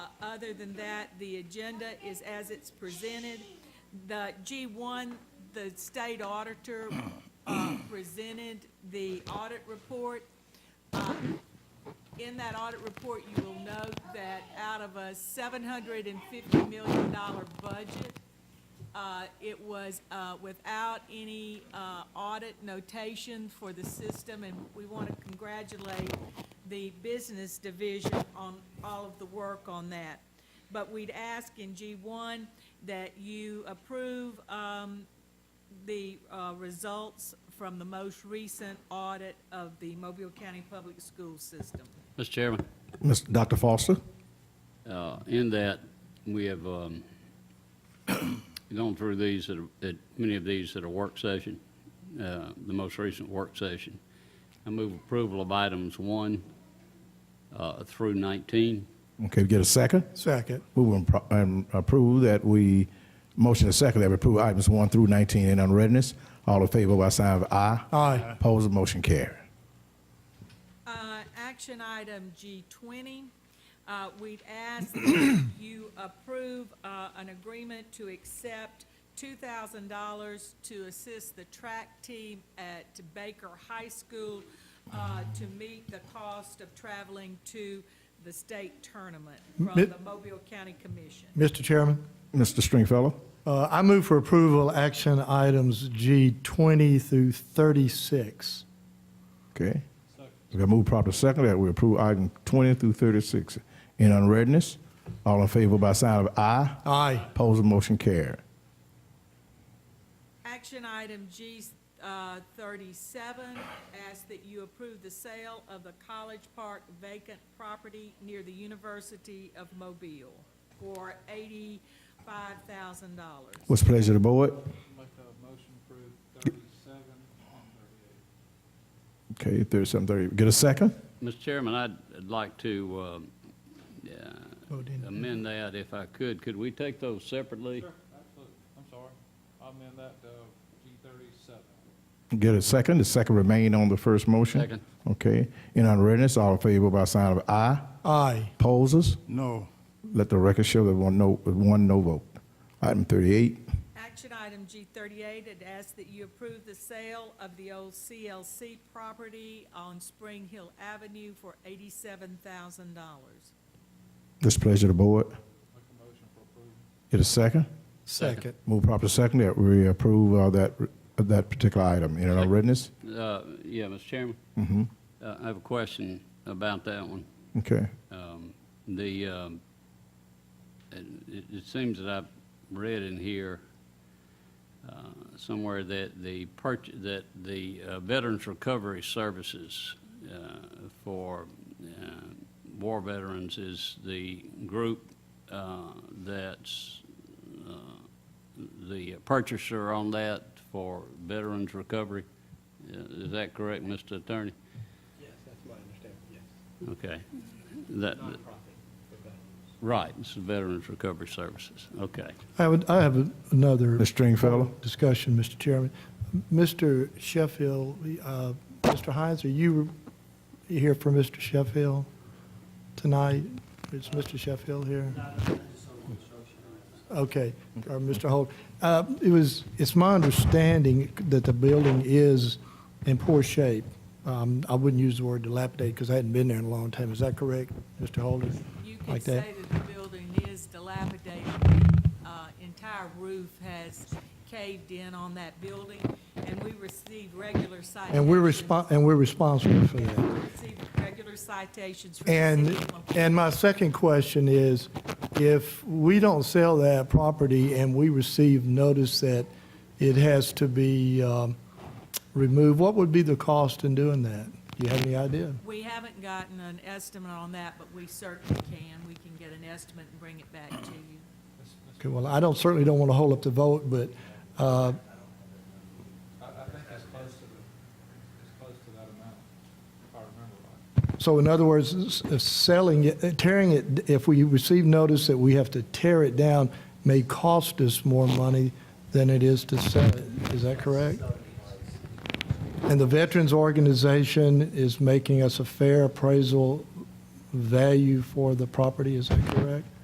Uh, Other than that, the agenda is as it's presented. The G1, the state auditor uh, presented the audit report. Um, In that audit report, you will note that out of a $750 million budget, uh, It was uh, without any uh, audit notation for the system, and we want to congratulate the business division on all of the work on that. But we'd ask in G1 that you approve um, the uh, results from the most recent audit of the Mobile County Public School System. Mr. Chairman, Mr. Dr. Foster? uh, in that, we have um, gone through these, at a- at many of these at a work session, uh, the most recent work session. I move approval of items one uh, through 19. Okay, we get a second? Second. Move and pro- and approve that we, motion a second that we approve items one through 19 in unreadness. All in favor by sign of aye. Aye. Opposed, motion carried. Uh, Action item G20, uh, we'd ask that you approve uh, an agreement to accept $2,000 to assist the track team at Baker High School uh, to meet the cost of traveling to the state tournament from Mi- the Mobile County Commission. Mr. Chairman, Mr. Stringfellow? uh, I move for approval, action items G 20 through 36. Okay. We got moved properly second that we approve item 20 through 36 in unreadness. All in favor by sign of aye. Aye. Opposed, motion carried. Action item G uh, thirty-seven, ask that you approve the sale of the College Park vacant property near the University of Mobile for eighty-five thousand dollars. What's the pleasure of the board? Make a motion approve thirty-seven and thirty-eight. Okay, 37, 30. Get a second? Mr. Chairman, I'd like to um, yeah, Vote in. amend that if I could. Could we take those separately? Sure, absolutely. I'm sorry. I'll amend that to G thirty-seven. Get a second. The second remain on the first motion. Second. Okay. In unreadness, all in favor by sign of aye. Aye. Opposes? No. Let the record show that one no, one no vote. Item 38. Action item G thirty-eight, it asks that you approve the sale of the old CLC property on Spring Hill Avenue for eighty-seven thousand dollars. This pleasure of the board. Make a motion for approval. Get a second. Second. Move proper second that we approve uh, that, that particular item. In unreadness? Uh, Yeah, Mr. Chairman? Uh, I have a question about that one. Okay. Um, The, um, and it it seems that I've read in here uh, somewhere that the, purch- that the uh, Veterans Recovery Services uh, for uh, war veterans is the group uh, that's uh, the purchaser on that for veterans recovery. Uh, Is that correct, Mr. Attorney? Yes, that's my understanding, yes. Okay. That, Right, it's the Veterans Recovery Services, okay. I would, I have another Mr. Stringfellow? discussion, Mr. Chairman. Mr. Sheffield, uh, Mr. Hines, are you here for Mr. Sheffield tonight? Is Mr. Sheffield here? Okay, or Mr. Holt. Uh, It was, it's my understanding that the building is in poor shape. Um, I wouldn't use the word dilapidate because I hadn't been there in a long time. Is that correct, Mr. Holder? You Like could that? say that the building is dilapidated. The uh, entire roof has caved in on that building, and we receive regular citations. And we're respon and we're responsible for that. We receive regular citations from the And, city of Mobile. and my second question is, if we don't sell that property and we receive notice that it has to be um, removed, what would be the cost in doing that? Do you have any idea? We haven't gotten an estimate on that, but we certainly can. We can get an estimate and bring it back to you. Okay, well, I don't, certainly don't want to hold up the vote, but, uh, I, I think it's close to the, it's close to that amount, if I remember right. so in other words, s- if selling it, tearing it, if we receive notice that we have to tear it down, may cost us more money than it is to sell it. Is that correct? And the Veterans Organization is making us a fair appraisal value for the property, is that correct?